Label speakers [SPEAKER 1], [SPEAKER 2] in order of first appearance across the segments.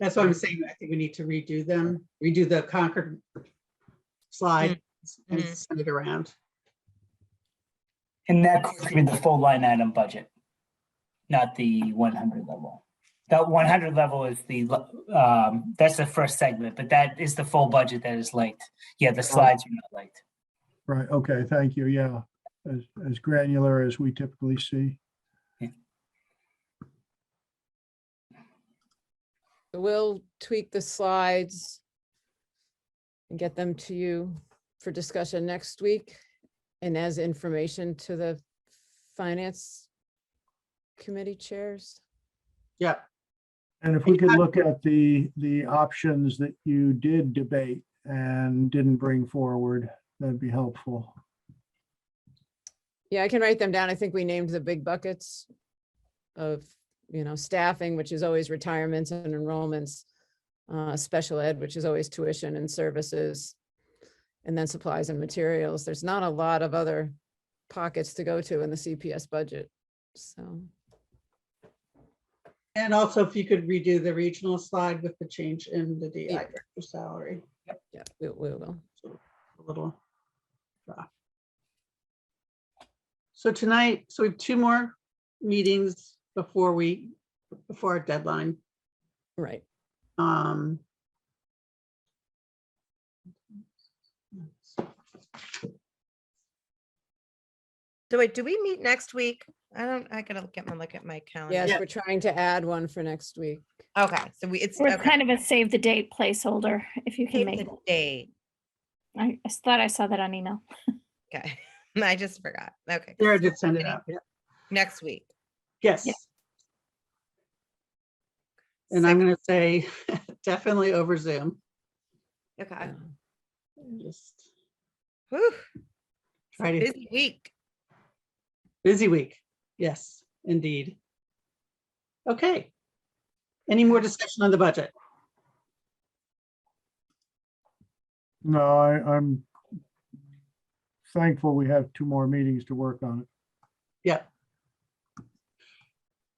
[SPEAKER 1] That's what I'm saying. I think we need to redo them, redo the Concord slide and
[SPEAKER 2] Mhm.
[SPEAKER 1] send it around.
[SPEAKER 3] And that could be the full line item budget, not the one hundred level. That one hundred level is the, l- um, that's the first segment, but that is the full budget that is linked. Yeah, the slides are not linked.
[SPEAKER 4] Right, okay, thank you, yeah, as, as granular as we typically see.
[SPEAKER 5] We'll tweak the slides and get them to you for discussion next week and as information to the finance committee chairs.
[SPEAKER 1] Yep.
[SPEAKER 4] And if we could look at the, the options that you did debate and didn't bring forward, that'd be helpful.
[SPEAKER 5] Yeah, I can write them down. I think we named the big buckets of, you know, staffing, which is always retirements and enrollments, uh, special ed, which is always tuition and services, and then supplies and materials. There's not a lot of other pockets to go to in the CPS budget, so.
[SPEAKER 1] And also if you could redo the regional slide with the change in the DI
[SPEAKER 5] Yeah.
[SPEAKER 1] director salary,
[SPEAKER 5] Yeah, we, we will.
[SPEAKER 1] a little. rough. So tonight, so we have two more meetings before we, before our deadline.
[SPEAKER 5] Right.
[SPEAKER 1] Um.
[SPEAKER 2] So wait, do we meet next week? I don't, I gotta get my look at my calendar.
[SPEAKER 5] Yes, we're trying to add one for next week.
[SPEAKER 2] Okay, so we, it's.
[SPEAKER 6] We're
[SPEAKER 2] okay.
[SPEAKER 6] kind of a save the date placeholder, if you can
[SPEAKER 2] Save
[SPEAKER 6] make
[SPEAKER 2] the
[SPEAKER 6] it.
[SPEAKER 2] Date,
[SPEAKER 6] I I thought I saw that on email.
[SPEAKER 2] okay. I just forgot. Okay.
[SPEAKER 1] Sarah did send it out. yeah.
[SPEAKER 2] Next week.
[SPEAKER 1] Yes. And I'm gonna say definitely over Zoom.
[SPEAKER 2] Okay.
[SPEAKER 5] Yeah.
[SPEAKER 1] Just
[SPEAKER 2] Whew,
[SPEAKER 1] try to,
[SPEAKER 2] busy week.
[SPEAKER 1] busy week. Yes, indeed. Okay. Any more discussion on the budget?
[SPEAKER 4] No, I, I'm thankful we have two more meetings to work on it.
[SPEAKER 1] Yep.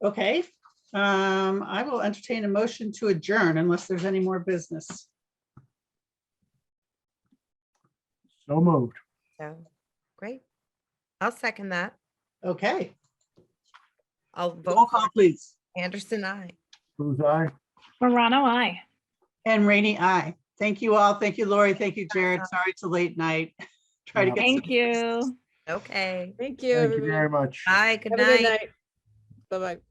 [SPEAKER 1] Okay, um, I will entertain a motion to adjourn unless there's any more business.
[SPEAKER 4] So moved.
[SPEAKER 2] So, great. I'll second that.
[SPEAKER 1] Okay,
[SPEAKER 2] I'll
[SPEAKER 1] roll
[SPEAKER 2] vote
[SPEAKER 1] call please.
[SPEAKER 2] for Anderson, I.
[SPEAKER 4] Booth, aye?
[SPEAKER 6] Morano, I.
[SPEAKER 1] And Rainy, I. Thank you all. Thank you, Lori. Thank you, Jared. Sorry it's a late night. Try to
[SPEAKER 4] No.
[SPEAKER 1] get. some
[SPEAKER 6] Thank
[SPEAKER 1] business.
[SPEAKER 6] you.
[SPEAKER 2] Okay.
[SPEAKER 5] Thank you.
[SPEAKER 4] Thank you
[SPEAKER 5] everybody.
[SPEAKER 4] very much.
[SPEAKER 2] Bye, good
[SPEAKER 5] Have a good
[SPEAKER 2] night.
[SPEAKER 5] night. Bye-bye.